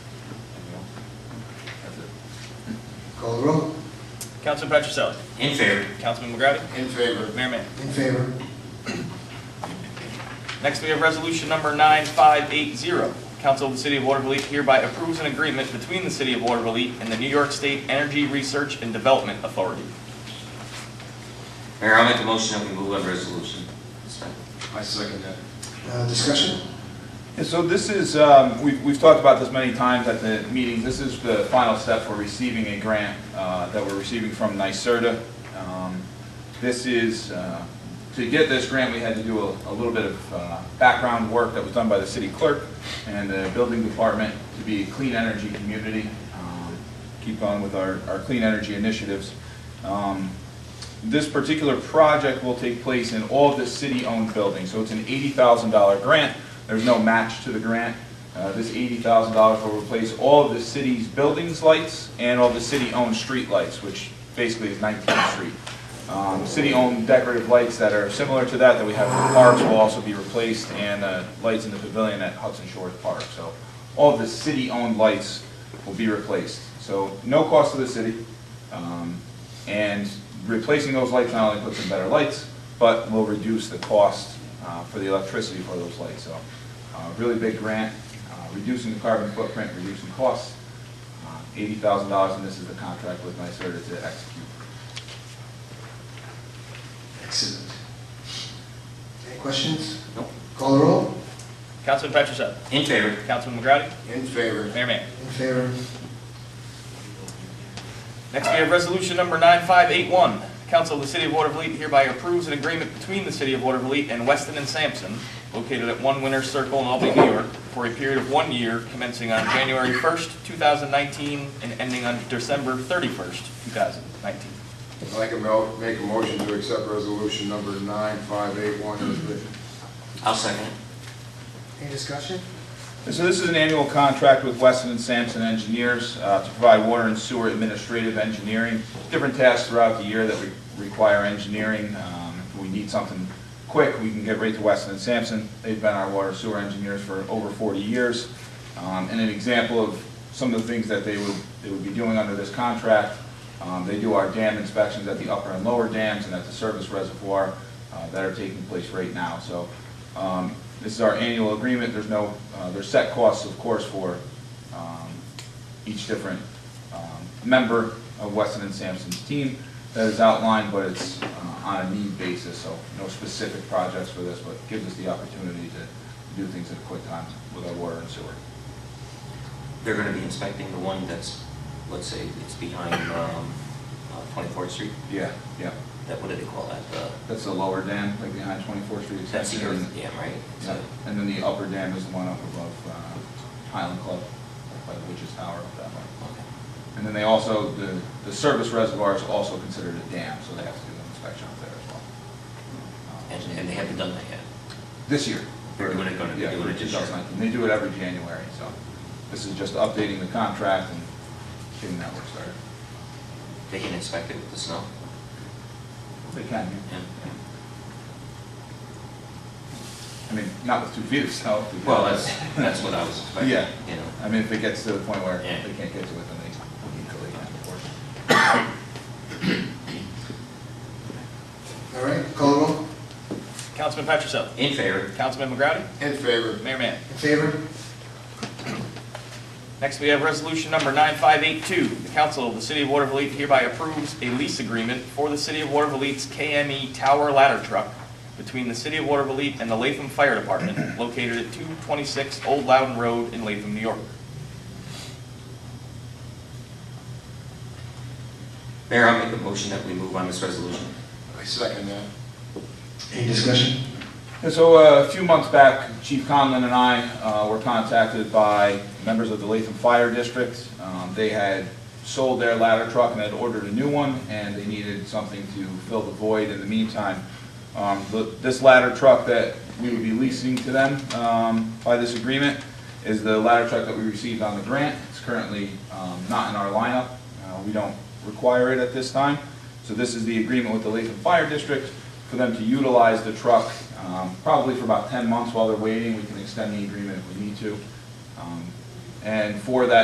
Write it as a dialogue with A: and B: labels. A: Call the roll.
B: Councilman Petroselli.
C: In favor.
B: Councilman McGrattan.
C: In favor.
B: Mayor Manning.
A: In favor.
B: Next, we have resolution number 9580. Council of the City of Waterville hereby approves an agreement between the City of Waterville and the New York State Energy Research and Development Authority.
C: Mayor, I'll make the motion that we move on resolution. Second.
D: I second that.
A: Uh, Discussion?
E: Yeah, so this is, um, we've, we've talked about this many times at the meetings, this is the final step for receiving a grant uh, that we're receiving from NYSERDA. Um, This is, uh, to get this grant, we had to do a, a little bit of uh, background work that was done by the city clerk and the building department to be a clean energy community, um, keep on with our, our clean energy initiatives. Um, this particular project will take place in all of the city-owned buildings, so it's an $80,000 grant. There's no match to the grant. Uh, This $80,000 will replace all of the city's buildings lights and all the city-owned street lights, which basically is 19th Street. Um, City-owned decorative lights that are similar to that, that we have in parks will also be replaced, and uh, lights in the pavilion at Hudson Shores Park. So all of the city-owned lights will be replaced. So no cost to the city. Um, And replacing those lights not only puts in better lights, but will reduce the cost uh, for the electricity for those lights. So uh, really big grant, uh, reducing the carbon footprint, reducing costs. Uh, $80,000, and this is the contract with NYSERDA to execute.
A: Excellent. Any questions?
C: Nope.
A: Call the roll.
B: Councilman Petroselli.
C: In favor.
B: Councilman McGrattan.
D: In favor.
B: Mayor Manning.
A: In favor.
B: Next, we have resolution number 9581. Council of the City of Waterville hereby approves an agreement between the City of Waterville and Weston and Sampson, located at One Winter Circle in Albany, New York, for a period of one year commencing on January 1st, 2019, and ending on December 31st, 2019.
D: I'd like to mo- make a motion to accept resolution number 9581 as written.
C: I'll second it.
A: Any discussion?
E: And So this is an annual contract with Weston and Sampson Engineers uh, to provide water and sewer administrative engineering, different tasks throughout the year that we require engineering. Um, If we need something quick, we can get right to Weston and Sampson. They've been our water sewer engineers for over 40 years. Um, And an example of some of the things that they would, they would be doing under this contract, um, they do our dam inspections at the upper and lower dams and at the service reservoir uh, that are taking place right now. So um, This is our annual agreement, there's no, uh, there's set costs, of course, for um, each different um, member of Weston and Sampson's team that is outlined, but it's uh, on a need basis, so no specific projects for this, but gives us the opportunity to do things in a quick time with our water and sewer.
C: They're gonna be inspecting the one that's, let's say, it's behind, um, uh, Twenty-Fourth Street.
E: Yeah, yeah,
C: That, what do they call that? The,
E: that's the lower dam, like behind 24th Street
C: that's the
E: extension.
C: earth dam, right? It's
E: Yeah,
C: a-
E: And then the upper dam is the one up above uh, Highland Club, by the Witch's Tower up that way.
C: okay.
E: And then they also, the, the service reservoir is also considered a dam, so they have to do an inspection up there as well.
C: And, and they haven't done that yet.
E: This year.
C: They're doing it gonna-
E: Yeah,
C: they're doing it this year.
E: 2019. They do it every January, so this is just updating the contract and getting that work started.
C: They can inspect it with the snow?
E: They can,
C: Yeah.
E: I mean, not with two feet of snow. because-
C: Well, that's, that's what I was expecting,
E: Yeah.
C: you know?
E: I mean, if it gets to the point where they
C: Yeah.
E: can't get to it, then they equally have to work.
A: All right, call the roll.
B: Councilman Petroselli.
C: In favor.
B: Councilman McGrattan.
D: In favor.
B: Mayor Manning.
A: In favor?
B: Next, we have resolution number 9582. The council of the city of Waterville hereby approves a lease agreement for the city of Waterville's KME E Tower Ladder Truck between the city of Waterville and the Latham Fire Department located at 226 Old Loudon Road in Latham, New York.
C: Mayor, I'll make the motion that we move on this resolution.
D: I second that.
A: Any discussion?
E: And so uh, a few months back, Chief Conlon and I uh, were contacted by members of the Latham Fire District. Um, They had sold their ladder truck and had ordered a new one, and they needed something to fill the void in the meantime. Um, the- This ladder truck that we would be leasing to them um, by this agreement is the ladder truck that we received on the grant. It's currently um, not in our lineup. Uh, We don't require it at this time. So this is the agreement with the Latham Fire District for them to utilize the truck, um, probably for about 10 months while they're waiting. We can extend the agreement if we need to. Um, And for that